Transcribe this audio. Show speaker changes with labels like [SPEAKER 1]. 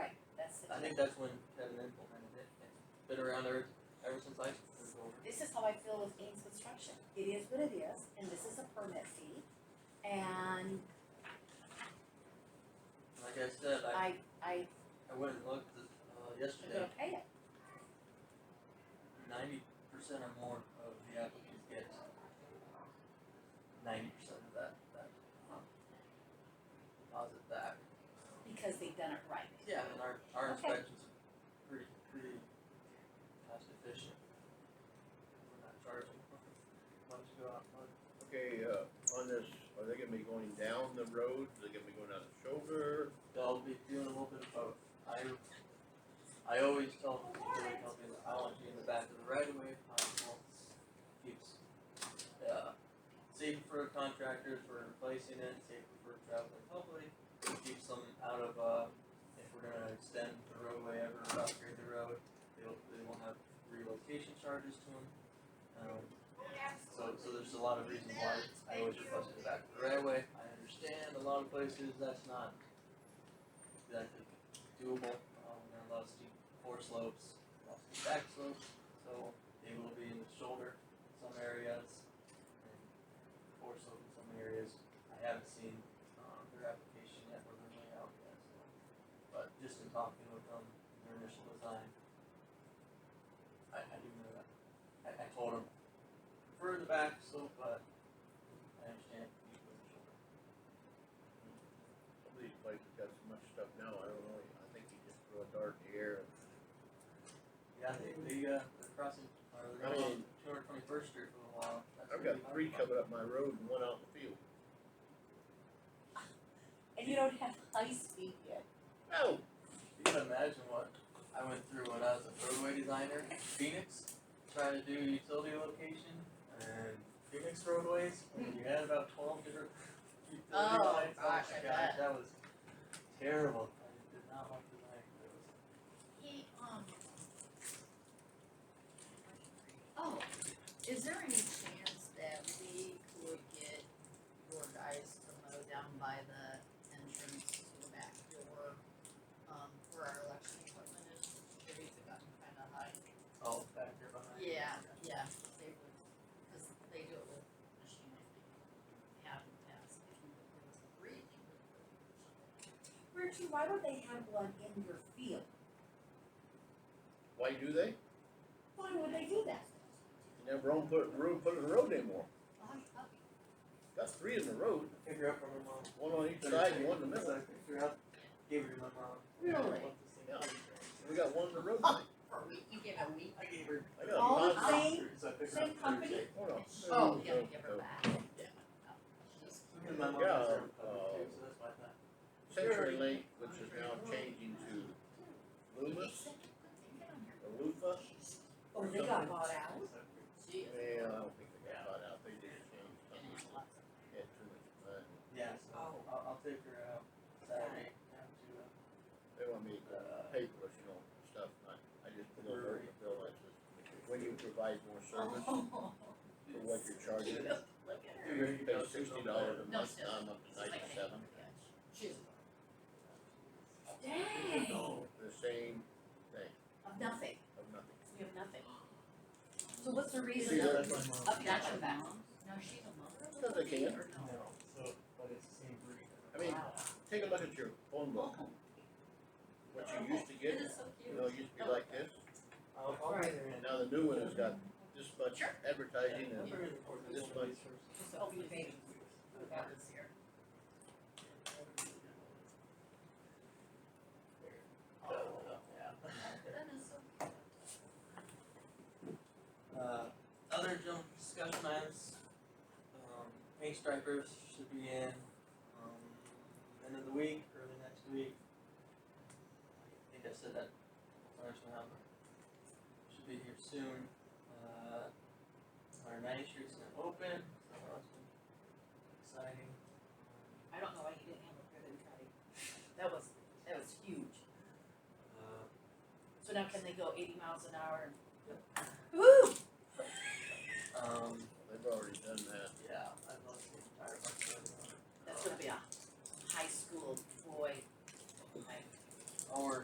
[SPEAKER 1] think that's when Kevin implemented it, it's been around ever, ever since I was over.
[SPEAKER 2] This is how I feel with Ames Construction. It is what it is, and this is a permit fee. And
[SPEAKER 1] Like I said, I,
[SPEAKER 2] I, I,
[SPEAKER 1] I went and looked, uh,
[SPEAKER 2] I'm
[SPEAKER 1] yesterday,
[SPEAKER 2] gonna pay it.
[SPEAKER 1] ninety percent or more of the applicants get ninety percent of that, that, um, deposit back.
[SPEAKER 2] Because they've done it right.
[SPEAKER 1] Yeah, and our, our
[SPEAKER 2] Okay.
[SPEAKER 1] inspections are pretty, pretty cost efficient. We're not charging much to go out, but
[SPEAKER 3] Okay, uh, on this, are they gonna be going down the road, are they gonna be going on the shoulder?
[SPEAKER 1] they'll be doing a little bit of both. I, I always tell people, I tell people, I want you in the back of the right of way if possible. Keeps, uh, safe for contractors for replacing it, safe for traveling public. It Keeps them out of, uh, if we're gonna extend the roadway ever, or upgrade the road, they'll, they won't have relocation charges to them. Um, so, so there's a lot of reasons why I always request it back to the right of way. I understand a lot of places that's not exactly doable. Um, there are lots of steep four slopes, lots of steep back slopes, so they will be in the shoulder in some areas and four slope in some areas. I haven't seen um, their application yet or their layout yet, so. But just in talking with them, their initial design, I, I do know that. I, I told them prefer the back slope, but I understand you put the shoulder.
[SPEAKER 3] Some of these places got so much stuff now, I don't know, I think you just throw a dart in the air and
[SPEAKER 1] Yeah, they, they, uh, they're crossing, or they're
[SPEAKER 3] I
[SPEAKER 1] going
[SPEAKER 3] mean-
[SPEAKER 1] two hundred twenty-first street for a while. That's
[SPEAKER 3] Oh. I've
[SPEAKER 1] what
[SPEAKER 3] got
[SPEAKER 1] we talked
[SPEAKER 3] three
[SPEAKER 1] about.
[SPEAKER 3] coming up my road and one out in the field.
[SPEAKER 2] And you don't have high speed yet.
[SPEAKER 3] No,
[SPEAKER 1] You can imagine what I went through when I was a roadway designer, in Phoenix, trying to do utility location and Phoenix roadways, and you had about twelve different utility
[SPEAKER 2] Oh,
[SPEAKER 1] lines, oh my
[SPEAKER 2] gosh, I bet.
[SPEAKER 1] gosh, that was terrible. I did not like designing those.
[SPEAKER 4] Hey, um. Oh, is there any chance that we could get your guys to mow down by the entrance to the back door? Um, where our election equipment is, the trees have gotten kinda high.
[SPEAKER 1] Oh, back there behind.
[SPEAKER 4] Yeah, yeah, they would, cause they do it with machinery, they have in the past, if you would give us a breathing.
[SPEAKER 2] Richie, why don't they have one in your field?
[SPEAKER 3] why do they?
[SPEAKER 2] Why would they do that?
[SPEAKER 3] You never own put, room put in the road anymore,
[SPEAKER 4] Oh,
[SPEAKER 3] got three in the road,
[SPEAKER 1] Figure out from her mom.
[SPEAKER 3] one on each side and one in the middle,
[SPEAKER 1] Figure out, gave her to my mom.
[SPEAKER 2] Really?
[SPEAKER 1] I want the same
[SPEAKER 3] Yeah.
[SPEAKER 1] thing.
[SPEAKER 3] we got one in the road, I
[SPEAKER 4] For a week, you give a week?
[SPEAKER 1] I gave her.
[SPEAKER 3] got
[SPEAKER 2] All the
[SPEAKER 3] five.
[SPEAKER 2] same-
[SPEAKER 1] So I figured
[SPEAKER 2] same
[SPEAKER 1] out
[SPEAKER 2] company?
[SPEAKER 1] Thursday.
[SPEAKER 3] Hold on.
[SPEAKER 4] Oh,
[SPEAKER 3] No,
[SPEAKER 4] yeah,
[SPEAKER 3] no,
[SPEAKER 4] give
[SPEAKER 3] no.
[SPEAKER 4] her back, yeah. Oh, she's
[SPEAKER 1] Because my mom
[SPEAKER 3] Yeah,
[SPEAKER 1] has her own
[SPEAKER 3] uh,
[SPEAKER 1] company too, so that's why I thought.
[SPEAKER 3] Century Link, which is now changing to Loomis or Lufa,
[SPEAKER 2] Or they got bought out?
[SPEAKER 1] So I figured-
[SPEAKER 4] She is.
[SPEAKER 3] yeah, I don't think they got bought out, they did change something, they had too much money.
[SPEAKER 1] Yeah, so I'll, I'll take her out Saturday down to
[SPEAKER 3] They want me to
[SPEAKER 1] uh,
[SPEAKER 3] paper, you know, stuff, I, I just put a word in the bill, I just, when you provide more service
[SPEAKER 4] Oh,
[SPEAKER 3] for what you're charging,
[SPEAKER 4] look
[SPEAKER 3] you
[SPEAKER 4] at her.
[SPEAKER 3] pay sixty dollars a
[SPEAKER 4] No,
[SPEAKER 3] month,
[SPEAKER 4] sir.
[SPEAKER 3] now I'm up to ninety-seven.
[SPEAKER 4] She's.
[SPEAKER 2] Dang,
[SPEAKER 3] No, The same thing,
[SPEAKER 2] of nothing,
[SPEAKER 3] of nothing.
[SPEAKER 2] we have nothing. So what's the
[SPEAKER 3] See,
[SPEAKER 2] reason of,
[SPEAKER 3] that's
[SPEAKER 2] of
[SPEAKER 3] what,
[SPEAKER 2] that
[SPEAKER 1] my
[SPEAKER 4] That's her
[SPEAKER 2] back?
[SPEAKER 4] mom? No, she's a mother.
[SPEAKER 3] Because they can.
[SPEAKER 4] Or no?
[SPEAKER 1] No, so, but it's the same breed.
[SPEAKER 3] I mean, take a look at your phone book, what you used to
[SPEAKER 4] It
[SPEAKER 3] get,
[SPEAKER 4] is so
[SPEAKER 3] you
[SPEAKER 4] cute.
[SPEAKER 3] know, it used to be like this,
[SPEAKER 1] I'll, I'll bring her in.
[SPEAKER 3] and now the new one has got this much advertising
[SPEAKER 1] I'll
[SPEAKER 3] and
[SPEAKER 1] bring her in the course of
[SPEAKER 3] this
[SPEAKER 1] one of these
[SPEAKER 4] Just open the baby. That was here.
[SPEAKER 1] first.
[SPEAKER 4] Oh,
[SPEAKER 1] Yeah.
[SPEAKER 4] that is so cute.
[SPEAKER 1] Uh, other general discussion items, um, paint stripers should be in, um, end of the week, early next week. I think I said that a couple times now, but should be here soon. Uh, our ninety street's now open, so that's been exciting.
[SPEAKER 2] I don't know why you didn't have a ribbon cutting. That was, that was huge.
[SPEAKER 1] Uh,
[SPEAKER 2] So now can they go eighty miles an hour and?
[SPEAKER 1] um,
[SPEAKER 3] They've already done that.
[SPEAKER 1] yeah, I love the entire bunch of them.
[SPEAKER 2] Oh That's gonna be a high school boy, like,
[SPEAKER 1] Or